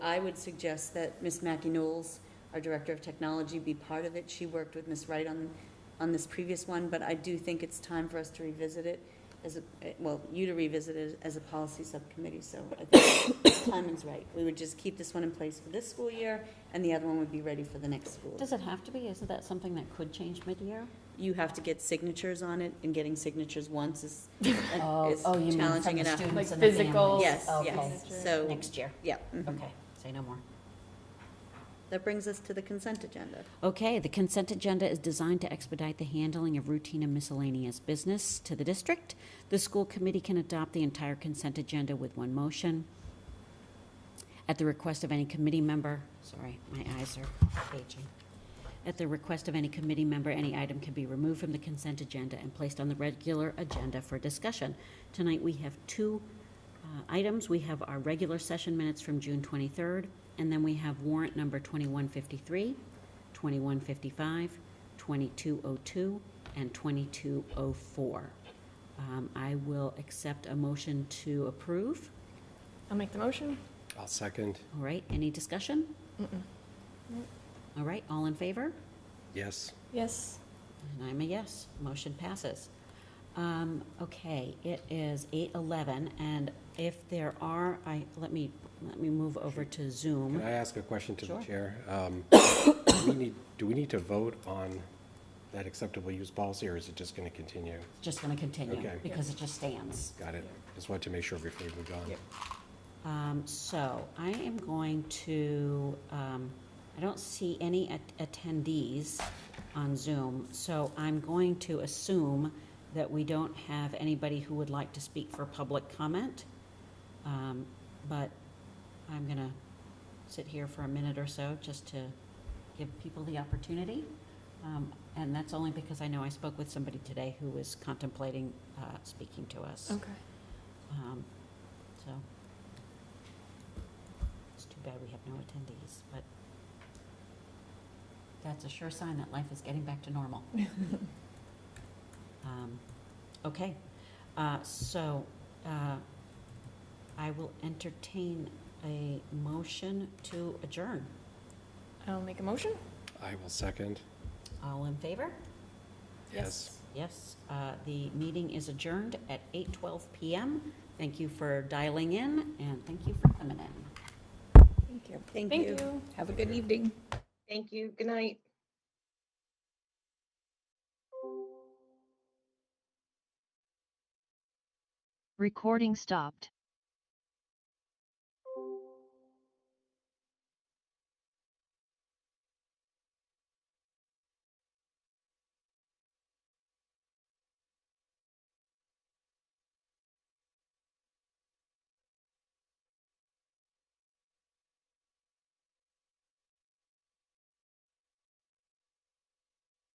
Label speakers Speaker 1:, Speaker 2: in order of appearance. Speaker 1: I would suggest that Ms. Mackie Knowles, our Director of Technology, be part of it. She worked with Ms. Wright on, on this previous one, but I do think it's time for us to revisit it as a, well, you to revisit it as a policy subcommittee, so I think timing's right. We would just keep this one in place for this school year, and the other one would be ready for the next school.
Speaker 2: Does it have to be? Isn't that something that could change mid-year?
Speaker 1: You have to get signatures on it, and getting signatures once is, is
Speaker 2: Oh, you mean from
Speaker 1: challenging
Speaker 2: the
Speaker 1: enough.
Speaker 2: students
Speaker 3: Like
Speaker 2: and the families?
Speaker 3: physicals?
Speaker 1: Yes,
Speaker 2: Okay,
Speaker 1: yes, so,
Speaker 2: next year,
Speaker 1: yeah. mhm.
Speaker 2: okay, say no more.
Speaker 1: That brings us to the consent agenda.
Speaker 2: Okay, the consent agenda is designed to expedite the handling of routine and miscellaneous business to the district. The school committee can adopt the entire consent agenda with one motion at the request of any committee member. Sorry, my eyes are aging. At the request of any committee member, any item can be removed from the consent agenda and placed on the regular agenda for discussion. Tonight, we have two uh, items. We have our regular session minutes from June 23rd, and then we have warrant number 2153, 2155, 2202, and 2204. Um, I will accept a motion to approve.
Speaker 3: I'll make the motion.
Speaker 4: I'll second.
Speaker 2: All right, any discussion? All right, all in favor?
Speaker 4: Yes.
Speaker 3: Yes.
Speaker 2: And I'm a yes, motion passes. Um, okay, it is eight eleven, and if there are, I, let me, let me move over to
Speaker 4: Can
Speaker 2: Zoom.
Speaker 4: I ask a question to the
Speaker 2: Mm-hmm. Sure.
Speaker 4: chair? Um, we need- Do we need to vote on that acceptable use policy, or is it just going to continue?
Speaker 2: Just gonna continue,
Speaker 4: Okay.
Speaker 2: because it just stands.
Speaker 4: Got it. Just wanted to make sure before we move on.
Speaker 2: Um, so I am going to, um, I don't see any at- attendees on Zoom, so I'm going to assume that we don't have anybody who would like to speak for public comment. Um, but I'm gonna sit here for a minute or so just to give people the opportunity. Um, and that's only because I know I spoke with somebody today who was contemplating, uh, speaking to us.
Speaker 3: Okay.
Speaker 2: Um, So, it's too bad we have no attendees, but that's a sure sign that life is getting back to normal. Um, Okay, uh, so uh, I will entertain a motion to adjourn.
Speaker 3: I'll make a motion.
Speaker 4: I will second.
Speaker 2: All in favor?
Speaker 4: Yes.
Speaker 2: Yes, uh, the meeting is adjourned at 8:12 PM. Thank you for dialing in, and thank you for coming in.
Speaker 3: Thank you.
Speaker 1: Thank you.
Speaker 3: Have a good evening.
Speaker 5: Thank you. Good night.
Speaker 6: Recording stopped.